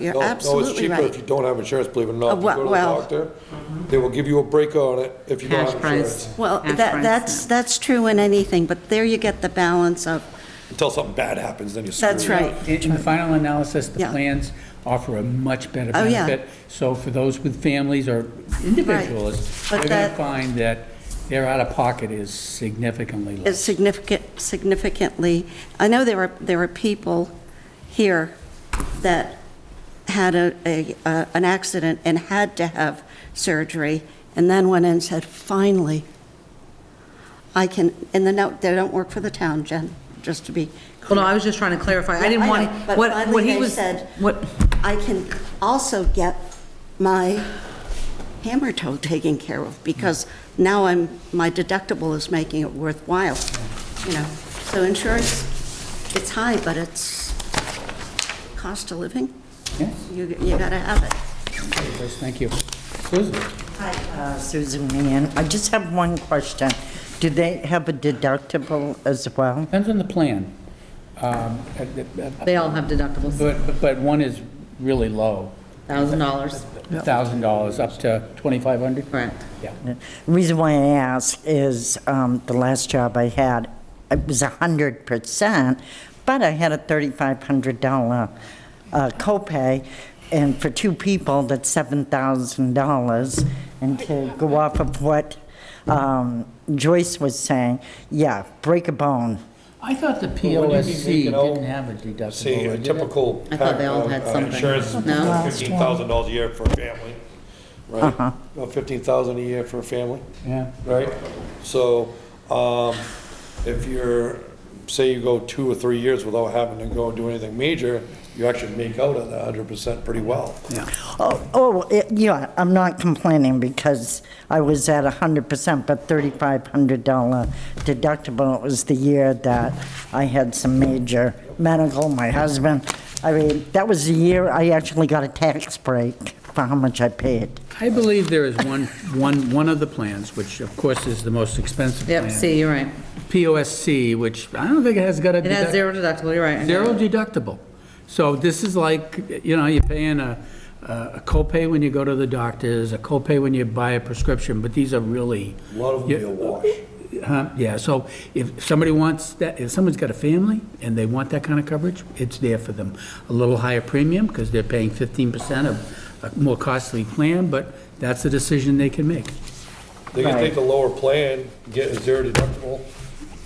You're No, absolutely No, it's cheaper if right. you don't have insurance, believe it or not. Uh, If you well- go to the well- doctor, they will give you a break on it if you don't Cash have price. insurance. Well, Cash that, price, that's, yeah. that's true in anything, but there you get the balance of, Until something bad happens, then you're screwed. that's right. In in the final analysis, the Yeah. plans offer a much better Oh, yeah. benefit. So for those with families or individuals, But they're going that- to find that their out-of-pocket is significantly is less. significant, significantly, I know there are, there are people here that had a, a, uh, an accident and had to have surgery, and then went in and said, finally, I can, and then, no, they don't work for the town, Jen, just to be Well, clear. no, I was just trying to clarify. I didn't I want, know, but what, finally what he they was, said- what, I can also get my hammer toe taken care of, because now I'm, my deductible is making it worthwhile, you know? So insurance, it's high, but it's cost of living, Yes, you, you gotta have it. yes, thank you. Susan? Hi, uh, Susan Meehan. I just have one question. Do they have a deductible as well? Depends on the plan. Um, uh, uh, uh, they all have deductibles, But, but- but one is really low, thousand dollars, $1,000 up to 2,500? correct? Yeah. The Reason why I ask is um, the last job I had, it was 100%, but I had a $3,500 uh, copay, and for two people, that's $7,000. And to go off of what um, Joyce was saying, yeah, break a bone. I thought the Well, wouldn't you be POSC making out- didn't have a deductible. See, a did it? typical. I thought they all pack, uh, had uh, something. Insurance is No. fifteen thousand dollars a year for a family, Uh-huh. right? Fifteen thousand a year for a family, Yeah. right? So, um, if you're, say you go two or three years without having to go and do anything major, you actually make out on that hundred percent pretty well. Oh, oh, it- yeah, I'm not complaining because I was at 100%, but $3,500 deductible, it was the year that I had some major medical, my husband. I mean, that was the year I actually got a tax break for how much I paid. I believe there is one, one, one of the plans, which of course is the most expensive plan. Yep, see, you're right. POSC, which I don't think it has got a. It has deduct- zero deductible, you're right. Zero deductible. So this is like, you know, you're paying a, a copay when you go to the doctors, a copay when you buy a prescription, but these are really. A lot of them be a wash. Huh, Yeah, so if somebody wants that, if someone's got a family and they want that kind of coverage, it's there for them. A little higher premium because they're paying 15% of a more costly plan, but that's a decision they can make. They can Right. take the lower plan, get a zero deductible,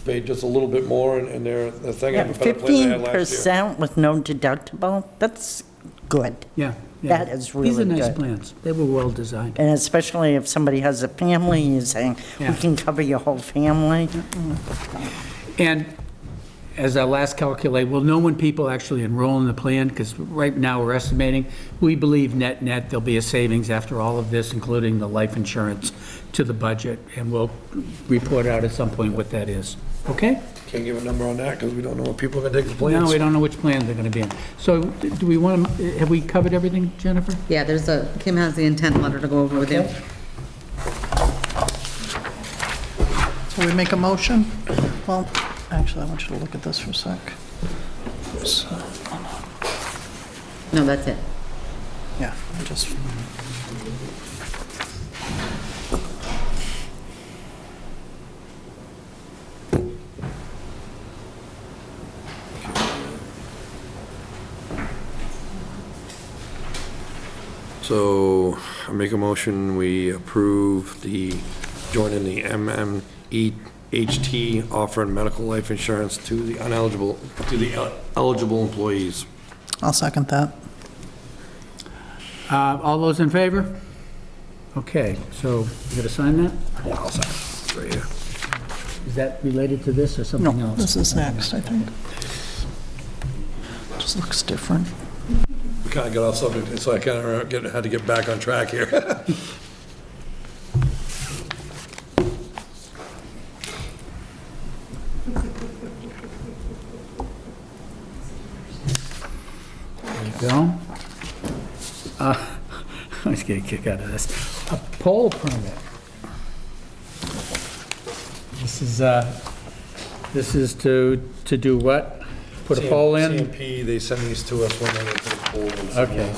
pay just a little bit more, and- and their, the thing, have a better plan than they had last year. 15% with no deductible, that's good. Yeah. yeah. That is really These are nice good. plans. They were well-designed. And especially if somebody has a family, you're saying, we Yeah. can cover your whole family. And as our last calculate, we'll know when people actually enroll in the plan, because right now we're estimating, we believe net-net, there'll be a savings after all of this, including the life insurance to the budget, and we'll report out at some point what that is. Okay? Can't give a number on that, because we don't know what people are gonna take the Now, plans. we don't know which plans they're going to be in. So do we want to, have we covered everything, Jennifer? Yeah, there's a, Kim has the intent letter to go over with you. So we make a motion? Well, actually, I want you to look at this for a sec. So, No, that's it. Yeah, I just, So I make a motion, we approve the, join in the MMEHT offering medical life insurance to the ineligible, to the eligible employees. I'll second that. Uh, All those in favor? Okay, so you got to sign that? Right here. Is that related to this or something No, else? this is next, I think. Just looks different. We kind of got off subject, so I kind of had to get back on track here. Go. Uh, I was getting a kick out of this. A pole permit. This is, uh, this is to, to do what? Put a pole in? CMP, they send these to us when they get to the pool. Okay.